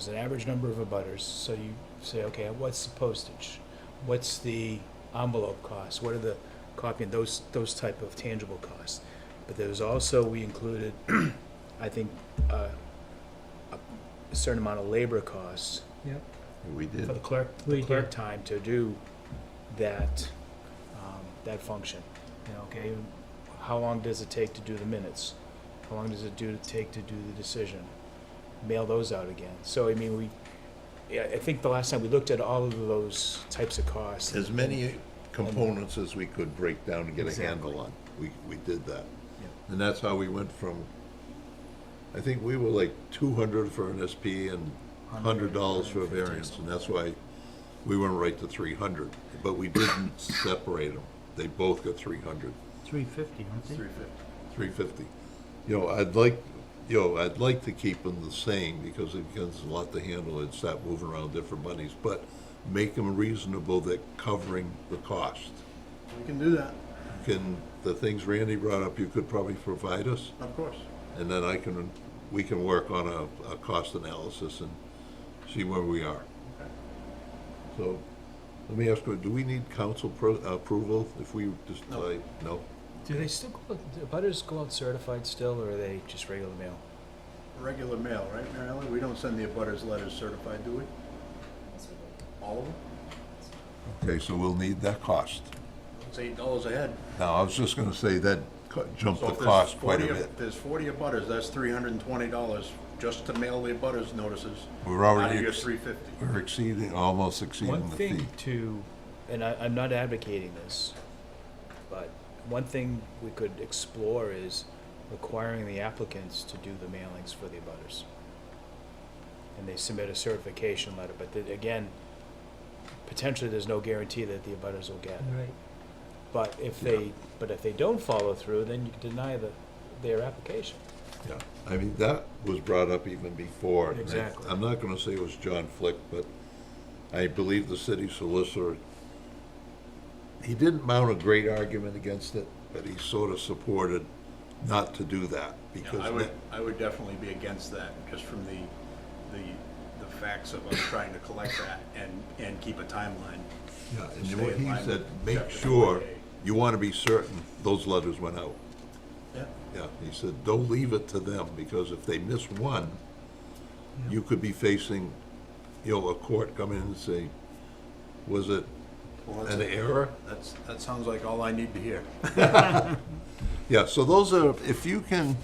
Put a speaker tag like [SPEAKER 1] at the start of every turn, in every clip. [SPEAKER 1] There's an average number of abutters, so you say, okay, what's the postage? What's the envelope cost? What are the copying, those, those type of tangible costs? But there's also, we included, I think, uh, a certain amount of labor costs
[SPEAKER 2] Yep.
[SPEAKER 3] We did.
[SPEAKER 1] for the clerk, the
[SPEAKER 2] We
[SPEAKER 1] clerk
[SPEAKER 2] did.
[SPEAKER 1] time to do that, um, that function. You know, okay, how long does it take to do the minutes? How long does it do to take to do the decision? Mail those out again. So, I mean, we, yeah, I think the last time we looked at all of those types of costs.
[SPEAKER 3] As many components as we could break down and get a
[SPEAKER 1] Exactly.
[SPEAKER 3] handle on. We, we did that.
[SPEAKER 1] Yeah.
[SPEAKER 3] And that's how we went from, I think we were like two hundred for an SP and hundred dollars for a
[SPEAKER 1] 150,
[SPEAKER 3] variance, and
[SPEAKER 1] something.
[SPEAKER 3] that's why we went right to three hundred. But we didn't separate them. They both got three hundred.
[SPEAKER 2] Three fifty, aren't they?
[SPEAKER 3] 350. You know, I'd like, you know, I'd like to keep them the same because it becomes a lot to handle and stop moving around different monies, but make them reasonable that covering the cost.
[SPEAKER 4] We can do that,
[SPEAKER 3] Can, the things Randy brought up, you could probably provide us,
[SPEAKER 4] of course.
[SPEAKER 3] and then I can, we can work on a, a cost analysis and see where we are. So, let me ask, you, do we need council pro- approval if we just,
[SPEAKER 4] No.
[SPEAKER 3] like, no?
[SPEAKER 1] Do they still, go out- do butters go out certified still, or are they just regular mail?
[SPEAKER 4] Regular mail, right, Mary Ellen? We don't send the abutters letters certified, do we? All of them?
[SPEAKER 3] Okay, so we'll need that cost.
[SPEAKER 4] It's eight dollars a head.
[SPEAKER 3] Now, I was just gonna say that co- jumped
[SPEAKER 4] So
[SPEAKER 3] the
[SPEAKER 4] if there's
[SPEAKER 3] cost quite a
[SPEAKER 4] 40
[SPEAKER 3] bit.
[SPEAKER 4] If there's forty abutters, that's three hundred and twenty dollars just to mail the abutters notices.
[SPEAKER 3] We're already
[SPEAKER 4] Out of your
[SPEAKER 3] ex-
[SPEAKER 4] three fifty.
[SPEAKER 3] We're exceeding, almost
[SPEAKER 1] One
[SPEAKER 3] exceeding the
[SPEAKER 1] thing
[SPEAKER 3] fee.
[SPEAKER 1] to, and I, I'm not advocating this, but one thing we could explore is requiring the applicants to do the mailings for the abutters. And they submit a certification letter, but then again, potentially there's no guarantee that the abutters will get it.
[SPEAKER 2] Right.
[SPEAKER 1] But if they, but if they don't follow through, then you deny the, their application.
[SPEAKER 3] Yeah, I mean, that was brought up even before. and I-
[SPEAKER 1] Exactly.
[SPEAKER 3] I'm not gonna say it was John Flick, but I believe the city solicitor, he didn't mount a great argument against it, but he sort of supported not to do that
[SPEAKER 4] Yeah,
[SPEAKER 3] because
[SPEAKER 4] I would,
[SPEAKER 3] that-
[SPEAKER 4] I would definitely be against that, just from the, the, the facts of us trying to collect that and, and keep a timeline.
[SPEAKER 3] Yeah,
[SPEAKER 4] Stay
[SPEAKER 3] and what
[SPEAKER 4] in
[SPEAKER 3] he
[SPEAKER 4] line
[SPEAKER 3] said,
[SPEAKER 4] with
[SPEAKER 3] make
[SPEAKER 4] chapter
[SPEAKER 3] sure,
[SPEAKER 4] 48.
[SPEAKER 3] you wanna be certain those letters went out.
[SPEAKER 4] Yeah.
[SPEAKER 3] Yeah, he said, don't leave it to them, because if they miss one, you could be facing, you know, a court coming in and say, was it
[SPEAKER 4] Well, that's
[SPEAKER 3] an
[SPEAKER 4] it.
[SPEAKER 3] error?
[SPEAKER 4] That's, that sounds like all I need to hear.
[SPEAKER 3] Yeah, so those are, if you can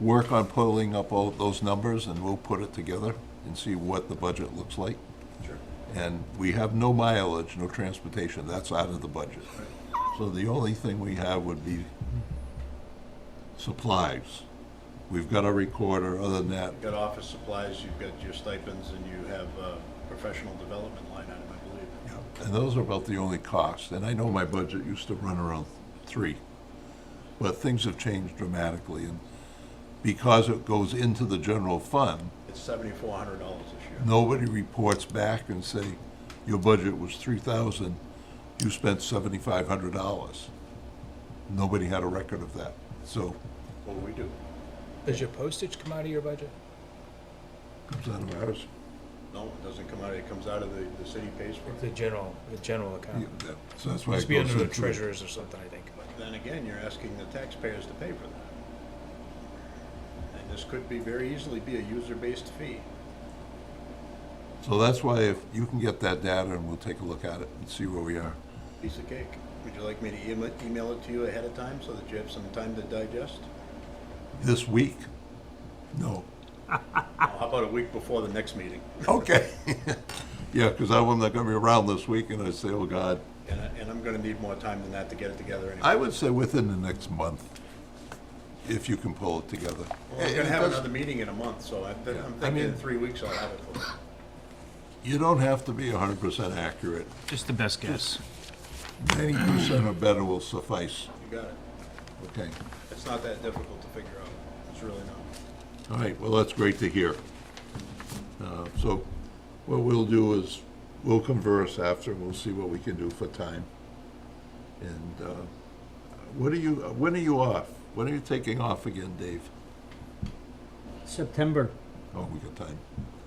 [SPEAKER 3] work on pulling up all those numbers, and we'll put it together and see what the budget looks like.
[SPEAKER 4] Sure.
[SPEAKER 3] And we have no mileage, no transportation, that's out of the budget. So the only thing we have would be supplies. We've got a recorder, other than that,
[SPEAKER 4] You've got office supplies, you've got your stipends, and you have a professional development line item, I believe.
[SPEAKER 3] And those are about the only costs, and I know my budget used to run around three. But things have changed dramatically, and because it goes into the general fund,
[SPEAKER 4] It's seventy-four hundred dollars this year.
[SPEAKER 3] nobody reports back and say, your budget was three thousand, you spent seventy-five hundred dollars. Nobody had a record of that, so
[SPEAKER 4] Well, we do.
[SPEAKER 1] Does your postage come out of your budget?
[SPEAKER 3] it comes out of ours.
[SPEAKER 4] No, it doesn't come out, it comes out of the, the city pays for it.
[SPEAKER 1] The general, the general
[SPEAKER 3] Yeah,
[SPEAKER 1] account.
[SPEAKER 3] that- So that's why
[SPEAKER 1] Must
[SPEAKER 3] it
[SPEAKER 1] be
[SPEAKER 3] goes
[SPEAKER 1] under the
[SPEAKER 3] into. it.
[SPEAKER 1] treasurer's or something, I think.
[SPEAKER 4] But then again, you're asking the taxpayers to pay for that. And this could be, very easily be a user-based fee.
[SPEAKER 3] So that's why if you can get that data and we'll take a look at it and see where we are.
[SPEAKER 4] Piece of cake. Would you like me to email, email it to you ahead of time so that you have some time to digest?
[SPEAKER 3] This week? No.
[SPEAKER 4] How about a week before the next meeting?
[SPEAKER 3] Okay. Yeah, because I'm not going to be around this week, and I say, oh, God.
[SPEAKER 4] And, I- and I'm gonna need more time than that to get it together anyway.
[SPEAKER 3] I would say within the next month, if you can pull it together.
[SPEAKER 4] Well, We're
[SPEAKER 3] And
[SPEAKER 4] gonna
[SPEAKER 3] it
[SPEAKER 4] have
[SPEAKER 3] does-
[SPEAKER 4] another meeting in a month, so I-
[SPEAKER 3] Yeah,
[SPEAKER 4] I'm
[SPEAKER 3] I
[SPEAKER 4] thinking in
[SPEAKER 3] mean-
[SPEAKER 4] three weeks I'll have it for you.
[SPEAKER 3] You don't have to be 100% accurate.
[SPEAKER 1] Just the best guess.
[SPEAKER 3] 90% or better will suffice,
[SPEAKER 4] You got it.
[SPEAKER 3] okay?
[SPEAKER 4] It's not that difficult to figure out. It's really not.
[SPEAKER 3] All right, well, that's great to hear. Uh, So what we'll do is, we'll converse after, and we'll see what we can do for time. And uh, what are you, when are you off? When are you taking off again, Dave?
[SPEAKER 2] September.
[SPEAKER 3] Oh, we got time.